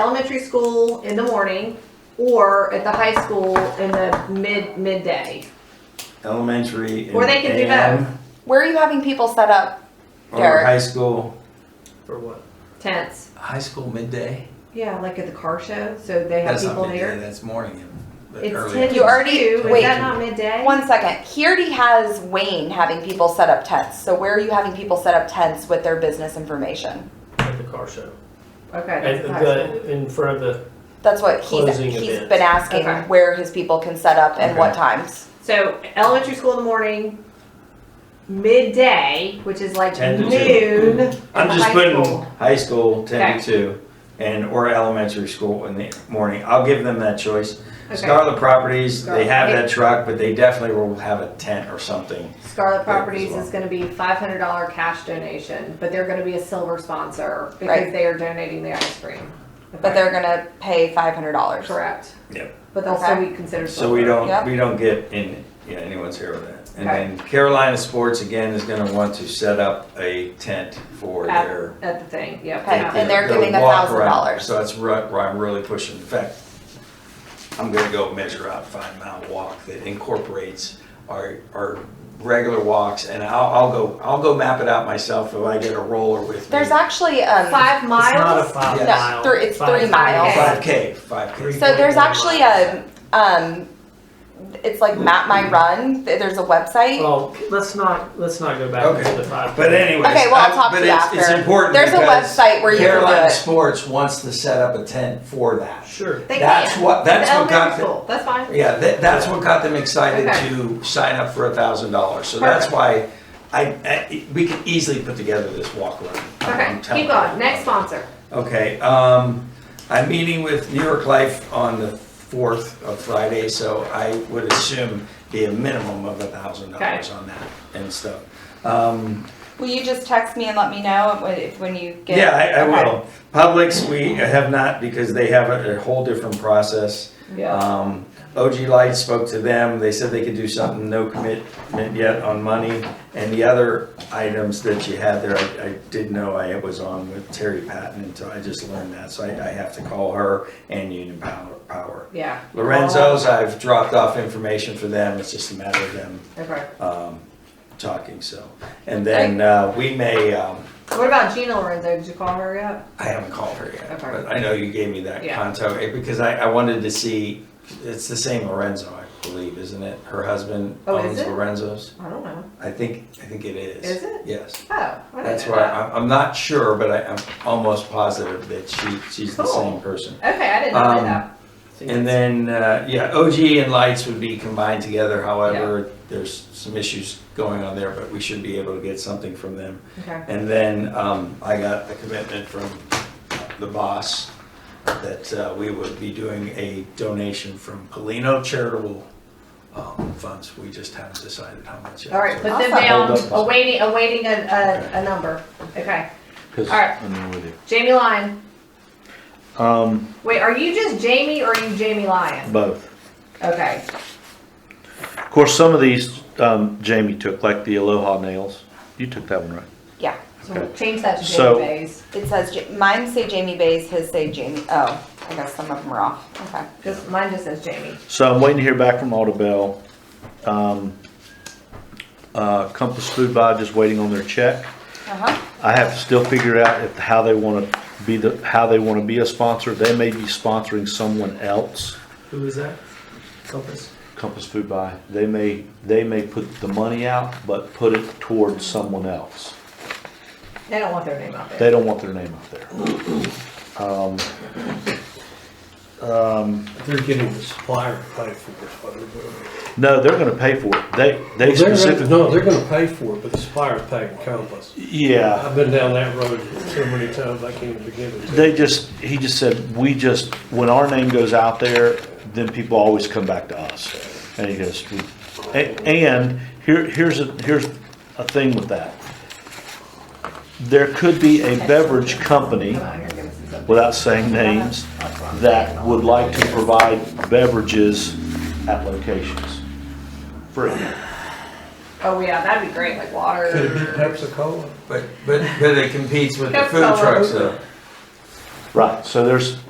elementary school in the morning or at the high school in the mid, midday. elementary. Or they in can do AM, Where are you having people set up? Or Derek. high school, For what? Tents. High school midday? Yeah, like at the car show, so they have That's people not midday, there. that's morning. and- but It's early. ten to You already- two. Is wait. that not midday? One second. He already has Wayne having people set up tents. So where are you having people set up tents with their business information? At the car show. Okay. At that's uh, the, high school. the- in front of the, That's what he's, Closing he's events. been asking Okay. where his people can set up and what times. So elementary school in the morning, midday, which is like 10 to two. noon. at I'm the just high putting school. high school ten Okay. to two, and or elementary school in the morning. I'll give them that choice. Okay. Scarlet Properties, they Scarlet. have that truck, but they definitely will have a tent or something. Scarlet Yeah, as Properties well. is gonna be five hundred dollar cash donation, but they're gonna be a silver sponsor because Right. they are donating the ice cream. But they're gonna pay five hundred dollars. Correct. Yep. But they'll still Okay. be considered. So we silver. don't, Yep. we don't get in, yeah, anyone's here with that. And Okay. then Carolina Sports again is gonna want to set up a tent for At- their. At the thing, yep. Okay. yeah. And they're their giving walk around. $1,000. So that's right, where I'm really pushing. In fact, I'm gonna go measure out, find Mount Walk that incorporates our, our regular walks. And I'll, I'll go, I'll go map it out myself if I get a roller with me. There's actually, um. Five it's not a miles, five Yes. mile. No, three- it's five three miles. Five K, five K. Three- So there's 3.1 actually a, um, it's like Map My Run. Th- There's a Oh. website. Well, let's not, let's not go back Okay. to the five. But anyways. Okay, well, I'll I- talk but to you it's- It's after. important There's a because website where you can do Carolina it. Sports wants to set up a tent for that. Sure. they That's can. what- that's At what elementary got the- school, That's fine. Yeah, that, that's what got them excited Okay. to sign up for a thousand dollars, so that's why I, I, we could easily put together this walk around. Okay, I'm telling keep you. going. Next sponsor. Okay, um, I'm meeting with New York Life on the fourth of Friday, so I would assume be a minimum of a thousand dollars Okay. on that and stuff. Um, Will you just text me and let me know when- if, when you get? yeah, I, I Okay. will. Publix, we have not, because they have a, a whole different process. Um, OG Light spoke to them, they said they could do something, no commitment yet on money. And the other items that you had there, I, I didn't know I was on with Terry Patton until I just learned that, so I, I have to call her and Union Power. Power. Yeah. Lorenzo's, I've dropped off information for them, it's just a matter of them, Okay. um, talking, so. And then, uh, we may, um, What about Gina Lorenzo? Did you call her yet? I haven't called her yet, Okay. but I know you gave me that Yeah. contact eh, because I, I wanted to see, it's the same Lorenzo, I believe, isn't it? Her husband Oh, is owns it? Lorenzo's. I don't know. I think, I think it is. Is it? Yes. Oh, I didn't That's know why, that. I'm, I'm not sure, but I, I'm almost positive that she, she's the Cool. same person. Okay, I didn't know Um, that. And then, uh, yeah, OG and lights would be combined together, however, there's some issues going on there, but we should be able to get something from them. Okay. And then um, I got a commitment from the boss that uh, we would be doing a donation from Polino charitable um, funds. We just haven't decided how much. yet. All right, put them Awesome. down, Hold up. awaiting, awaiting a, a, a number. Okay. Because All right. I'm in with you. Jamie Lyon. Um, Wait, are you just Jamie or are you Jamie Lyon? both. Okay. Of course, some of these um, Jamie took, like the Aloha nails. You took that one, right? Yeah. So Okay. we'll change that to Jamie So- Bays. It says, Ja- mine say Jamie Bays, his say Jamie, oh, I guess some of them are off. Okay. Just, mine just says Jamie. So I'm waiting to hear back from Audubell. Um, uh, Compass Food Buy just waiting on their check. Uh-huh. I have to still figure out if, how they want to be the how they want to be a sponsor. They may be sponsoring someone else. Who is that? Compass. Compass Food Buy. They may they may put the money out, but put it towards someone else. They don't want their name out there. They don't want their name out there. Um, They're getting the supplier to pay for this, what they're doing. no, they're going to pay for it. They they They're gonna, specifically. no, they're gonna pay for it, but the supplier's paying Compass. Yeah, I've been down that road so many times, I can't even begin to. they just he just said we just when our name goes out there, then people always come back to us. And he goes, we, a- and here here's a here's a thing with that. There could be a beverage company. Come on here, give us some- without saying names, that would like to provide beverages at locations. Free. Oh, yeah, that'd be great, like water. Could it be Pepsi Cola? But, but, but it competes with the That's food all. trucks though. Right, so there's,